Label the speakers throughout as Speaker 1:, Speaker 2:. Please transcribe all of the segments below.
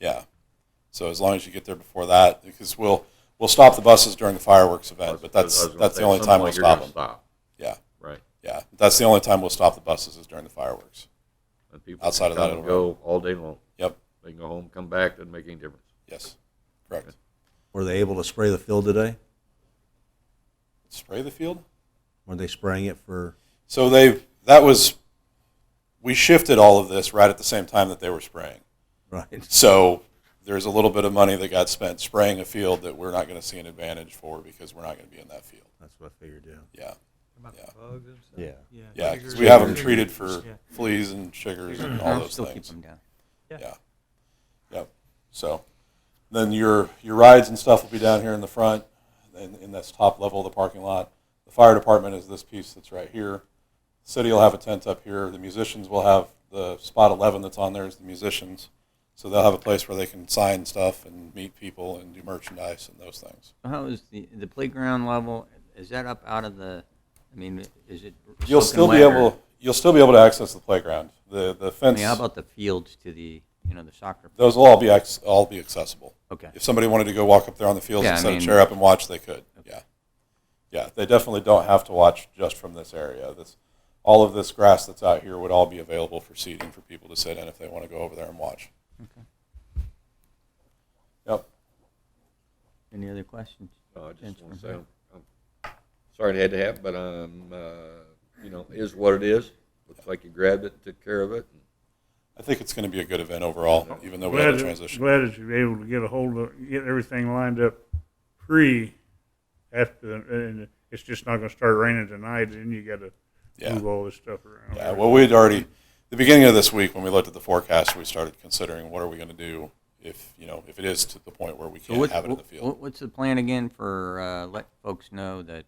Speaker 1: Yeah. So as long as you get there before that, because we'll we'll stop the buses during the fireworks event, but that's that's the only time we'll stop them.
Speaker 2: Stop,
Speaker 1: Yeah,
Speaker 2: right?
Speaker 1: yeah. That's the only time we'll stop the buses is during the fireworks.
Speaker 2: And people
Speaker 1: Outside of
Speaker 2: can
Speaker 1: that,
Speaker 2: come and
Speaker 1: it'll
Speaker 2: go all day long.
Speaker 1: Yep.
Speaker 2: They can go home, come back, doesn't make any difference.
Speaker 1: Yes. Correct.
Speaker 3: Were they able to spray the field today?
Speaker 1: Spray the field.
Speaker 3: Were they spraying it for?
Speaker 1: So they that was we shifted all of this right at the same time that they were spraying.
Speaker 3: Right.
Speaker 1: So there's a little bit of money that got spent spraying a field that we're not going to see an advantage for because we're not going to be in that field.
Speaker 3: That's what I figured. Yeah.
Speaker 1: Yeah.
Speaker 4: About
Speaker 1: Yeah.
Speaker 4: the bugs and stuff?
Speaker 3: Yeah.
Speaker 4: Yeah.
Speaker 1: Yeah,
Speaker 4: Sugars.
Speaker 1: because we have them treated for
Speaker 4: Yeah. Mm-hmm.
Speaker 1: fleas and sugars and all those
Speaker 5: Still keep
Speaker 1: things.
Speaker 5: them down.
Speaker 1: Yeah. Yep. So then your, your rides and stuff will be down here in the front, in, in this top level of the parking lot. The fire department is this piece that's right here. City will have a tent up here. The musicians will have the spot 11 that's on there is the musicians. So they'll have a place where they can sign stuff and meet people and do merchandise and those things.
Speaker 5: So How is the, the playground level, is that up out of the, I mean, is it?
Speaker 1: You'll
Speaker 5: soaking
Speaker 1: still be
Speaker 5: wet or-
Speaker 1: able, you'll still be able to access the playground. The, the
Speaker 5: I
Speaker 1: fence,
Speaker 5: mean, how about the fields to the, you know, the soccer?
Speaker 1: those will all be, ac- all be accessible.
Speaker 5: Okay,
Speaker 1: if somebody wanted to go walk up there on the fields
Speaker 5: Yeah,
Speaker 1: and
Speaker 5: I
Speaker 1: set
Speaker 5: mean-
Speaker 1: a chair up and watch, they could. Yeah, yeah. They definitely don't have to watch just from this area. This, all of this grass that's out here would all be available for seating for people to sit in if they want to go over there and watch. Okay. Yep.
Speaker 5: any other questions?
Speaker 2: Uh, I
Speaker 5: Thanks
Speaker 2: just
Speaker 5: for
Speaker 2: want to say,
Speaker 5: that.
Speaker 2: I'm, I'm sorry it had to happen, but um, uh, you know, is what it is. Looks like you grabbed it, and took care of it.
Speaker 1: I think it's going to be a good event overall, even though we
Speaker 6: Glad,
Speaker 1: have a
Speaker 6: that-
Speaker 1: transition.
Speaker 6: glad that you were able to get a hold of, get everything lined up pre, after, the- and it's just not gonna start raining tonight, and you gotta
Speaker 1: Yeah.
Speaker 6: move all this stuff around.
Speaker 1: Yeah. Well, we had already the beginning of this week when we looked at the forecast, we started considering what are we going to do if you know if it is to the point where we
Speaker 5: So
Speaker 1: can't
Speaker 5: what-
Speaker 1: have it in the field.
Speaker 5: what- What's the plan again for, uh, let folks know that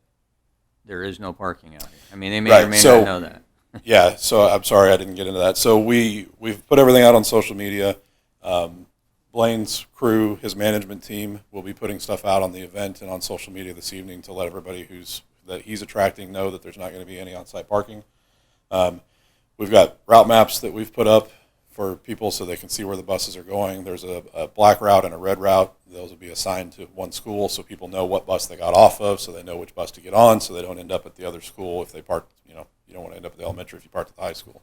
Speaker 5: there is no parking out here? I mean, they may or
Speaker 1: Right,
Speaker 5: may
Speaker 1: so-
Speaker 5: not know that.
Speaker 1: yeah so i'm sorry i didn't get into that so we we've put everything out on social media um, blaine's crew his management team will be putting stuff out on the event and on social media this evening to let everybody who's that he's attracting know that there's not going to be any on-site parking um, we've got route maps that we've put up for people so they can see where the buses are going there's a, a black route and a red route those will be assigned to one school so people know what bus they got off of so they know which bus to get on so they don't end up at the other school if they park you know you don't want to end up at the elementary if you park at the high school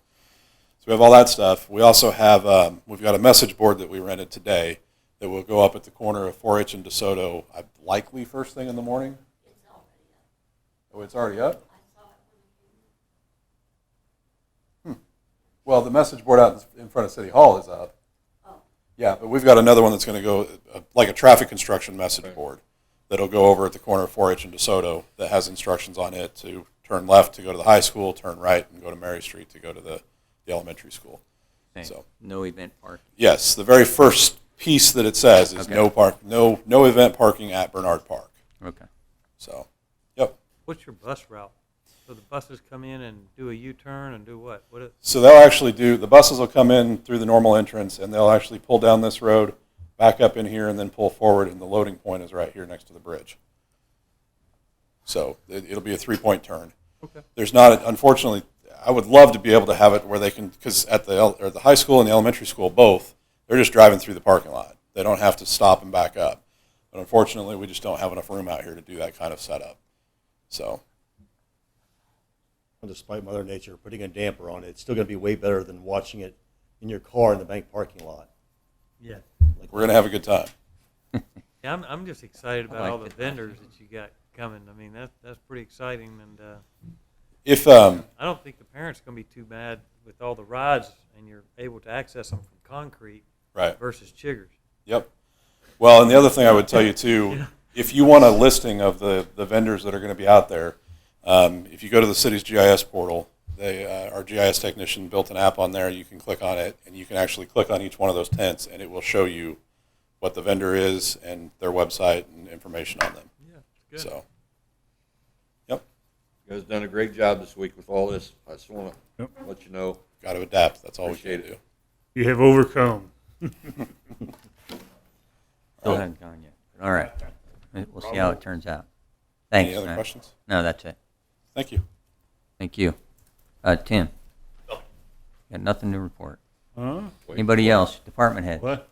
Speaker 1: so we have all that stuff. We also have, um, we've got a message board that we rented today that will go up at the corner of 4-H and DeSoto, I- likely first thing in the morning. Oh, it's already up? Hmm. Well, the message board out in front of City Hall is up. Yeah, but we've got another one that's going to go, uh, like a traffic construction message board that'll go over at the corner of 4-H and DeSoto that has instructions on it to turn left to go to the high school, turn right and go to Mary Street to go to the, the elementary school.
Speaker 5: Thanks.
Speaker 1: So-
Speaker 5: No event parking.
Speaker 1: Yes, the very first piece that it says is
Speaker 5: Okay.
Speaker 1: no park, no no event parking at Bernard Park.
Speaker 5: Okay.
Speaker 1: So, yep.
Speaker 4: What's your bus route? So the buses come in and do a U-turn and do what? What? is-
Speaker 1: So they'll actually do the buses will come in through the normal entrance and they'll actually pull down this road, back up in here, and then pull forward. And the loading point is right here next to the bridge. So it, it'll be a three point turn.
Speaker 4: Okay.
Speaker 1: There's not, unfortunately, I would love to be able to have it where they can, because at the, el- or the high school and the elementary school, both, they're just driving through the parking lot. They don't have to stop and back up. But unfortunately, we just don't have enough room out here to do that kind of setup. So,
Speaker 7: despite Mother Nature putting a damper on it, it's still going to be way better than watching it in your car in the bank parking lot.
Speaker 4: Yeah.
Speaker 1: we're going to have a good time.
Speaker 4: Yeah, I'm, I'm just excited about all the
Speaker 5: liked it.
Speaker 4: vendors that you got coming. I mean, that's, that's pretty exciting and, uh,
Speaker 1: If, um,
Speaker 4: I don't think the parents gonna be too mad with all the rides and you're able to access them from concrete
Speaker 1: right.
Speaker 4: versus chiggers.
Speaker 1: Yep. Well, and the other thing I would tell you too, if you want a listing of the, the vendors that are going to be out there, um, if you go to the city's GIS portal, they, uh, our GIS technician built an app on there. You can click on it, and you can actually click on each one of those tents, and it will show you what the vendor is and their website and information on them.
Speaker 4: Yeah, it's good.
Speaker 1: So, yep,
Speaker 2: You guys done a great job this week with all this. I just want to
Speaker 6: Yep.
Speaker 2: let you know.
Speaker 1: got to adapt. That's all we
Speaker 2: Appreciate
Speaker 1: can
Speaker 2: it.
Speaker 1: do.
Speaker 6: You have overcome.
Speaker 5: Still haven't gone yet. but All right. We'll see how it turns out. Thanks.
Speaker 1: Any other
Speaker 5: Matt.
Speaker 1: questions?
Speaker 5: No, that's it.
Speaker 1: Thank you.
Speaker 5: Thank you. Uh, Tim? Got nothing to report.
Speaker 6: Huh?
Speaker 5: Anybody else? Department head?
Speaker 6: What?